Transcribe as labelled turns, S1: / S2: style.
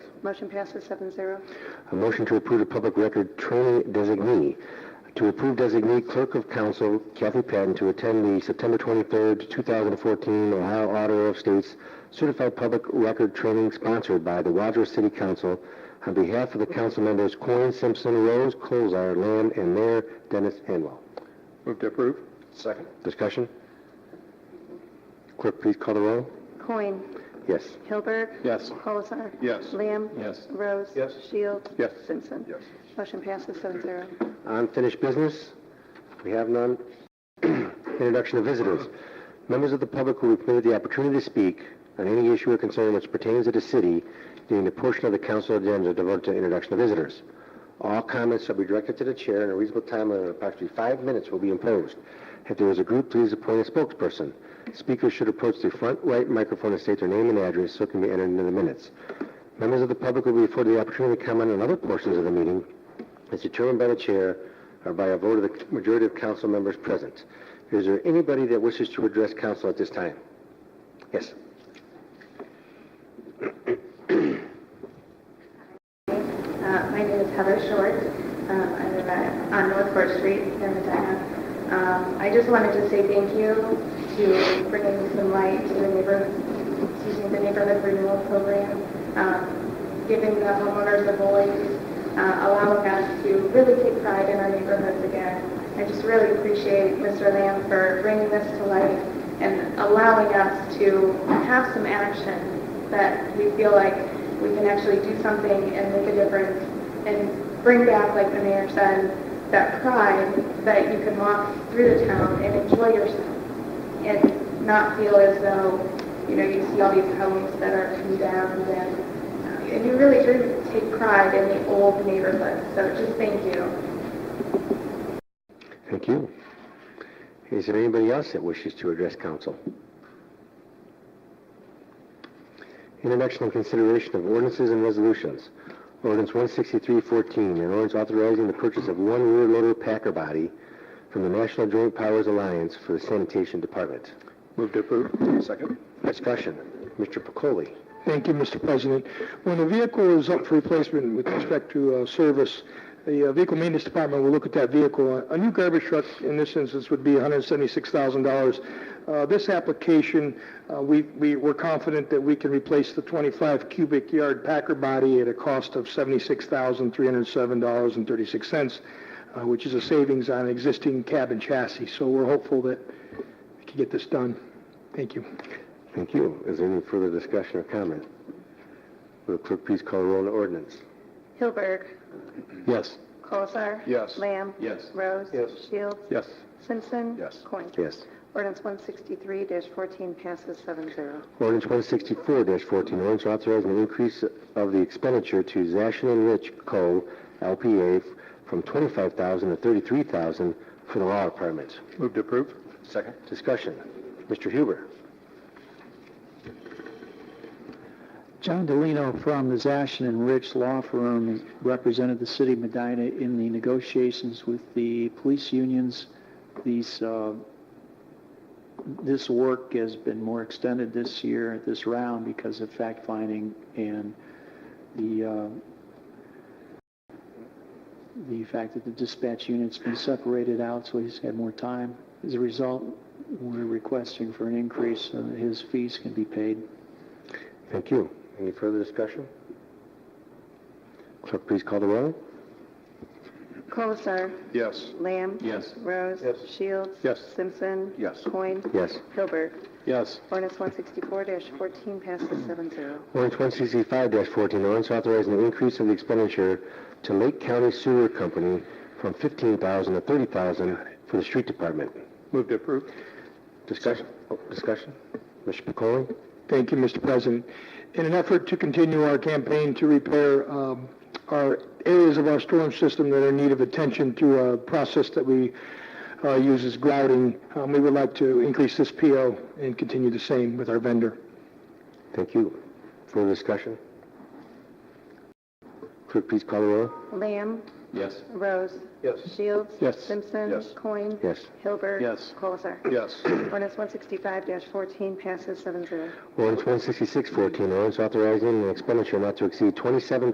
S1: Motion passes seven zero.
S2: A motion to approve the public record training designee. To approve designee clerk of council Kathy Patton to attend the September 23rd, 2014 Ohio Auditor of States Certified Public Record Training sponsored by the Rogers City Council on behalf of the council members Coin, Simpson, Rose, Colzar, Lamb, and Mayor Dennis Hanwell.
S3: Move to approve.
S2: Second. Discussion? Clerk, please call the roll.
S1: Coin.
S2: Yes.
S1: Hilberg.
S3: Yes.
S1: Colasar.
S3: Yes.
S1: Lamb.
S3: Yes.
S1: Rose.
S3: Yes.
S1: Shields.
S3: Yes.
S1: Simpson.
S3: Yes.
S1: Motion passes seven zero.
S2: Unfinished business? We have none. Introduction of visitors. Members of the public who are permitted the opportunity to speak on any issue or concern which pertains to the city during the portion of the council agenda devoted to introduction of visitors. All comments shall be directed to the chair and a reasonable time of approximately five minutes will be imposed. If there is a group, please appoint a spokesperson. Speakers should approach the front right microphone and state their name and address so it can be entered into the minutes. Members of the public will be afforded the opportunity to comment on other portions of the meeting as determined by the chair or by a vote of the majority of council members present. Is there anybody that wishes to address council at this time? Yes.
S4: Uh, My name is Heather Short. Um, I live at- on North Fourth Street here in Medina. Um, I just wanted to say thank you to bringing some light to the neighborhood, excuse me, the neighborhood renewal program, um, giving the homeowners a voice, uh, allowing us to really take pride in our neighborhoods again. I just really appreciate Mr. Lamb for bringing this to light and allowing us to have some action that we feel like we can actually do something and make a difference and bring back, like the mayor said, that pride that you can walk through the town and enjoy yourself and not feel as though, you know, you see all these homes that are condemned and, uh, and you really do take pride in the old neighborhood. So just thank you.
S2: Thank you. Is there anybody else that wishes to address council? Introduction and consideration of ordinances and resolutions. Ordinance 16314, an ordinance authorizing the purchase of one rear loader packer body from the National Joint Powers Alliance for the Sanitation Department.
S3: Move to approve. Second.
S2: Discussion. Mr. Pacoli.
S5: Thank you, Mr. President. When a vehicle is up for replacement with respect to uh, service, the uh, Vehicle Maintenance Department will look at that vehicle. A new garbage truck, in this instance, would be $176,000. Uh, This application, uh, we- we- we're confident that we can replace the 25 cubic yard Packer body at a cost of $76,307.36, uh, which is a savings on existing cab and chassis. So we're hopeful that we can get this done. Thank you.
S2: Thank you. Is there any further discussion or comment? Will the clerk please call the roll on the ordinance?
S1: Hilberg.
S2: Yes.
S1: Colasar.
S3: Yes.
S1: Lamb.
S3: Yes.
S1: Rose.
S3: Yes.
S1: Shields.
S3: Yes.
S1: Simpson.
S3: Yes.
S1: Coin.
S2: Yes.
S1: Ordinance one sixty-three fourteen passes seven zero.
S2: Ordinance one sixty-four fourteen, ordinance authorizing an increase of the expenditure to Zashin and Rich Co., LPA, from twenty-five thousand to thirty-three thousand for the law department.
S3: Move to approve. Second.
S2: Discussion. Mr. Huber.
S6: John Delino from the Zashin and Rich Law Firm represented the city of Medina in the negotiations with the police unions. These, uh, this work has been more extended this year, this round, because of fact-finding and the, uh, the fact that the dispatch unit's been separated out, so he's had more time. As a result, we're requesting for an increase so that his fees can be paid.
S2: Thank you. Any further discussion? Clerk, please call the roll.
S1: Colasar.
S3: Yes.
S1: Lamb.
S3: Yes.
S1: Rose.
S3: Yes.
S1: Shields.
S3: Yes.
S1: Simpson.
S3: Yes.
S1: Coin.
S2: Yes.
S1: Hilberg.
S3: Yes.
S1: Ordinance one sixty-four fourteen passes seven zero.
S2: Ordinance 165-14, ordinance authorizing an increase of the expenditure to Lake County Sewer Company from 15000 to 30000 for the street department.
S3: Move to approve.
S2: Discussion? Oh, Discussion? Mr. Pacoli?
S5: Thank you, Mr. President. In an effort to continue our campaign to repair um, our areas of our storm system that are in need of attention through a process that we uh, use as grouting, um, we would like to increase this PO and continue the same with our vendor.
S2: Thank you. Further discussion? Clerk, please call the roll.
S1: Lamb.
S3: Yes.
S1: Rose.
S3: Yes.
S1: Shields.
S6: Yes.
S1: Simpson.
S3: Yes.
S1: Coin.
S2: Yes.
S1: Hilbert.
S6: Yes.
S1: Colasar.
S3: Yes.
S1: Ordinance 165-14 passes 7-0.
S2: Ordinance 166-14, ordinance authorizing an expenditure not to exceed twenty-seven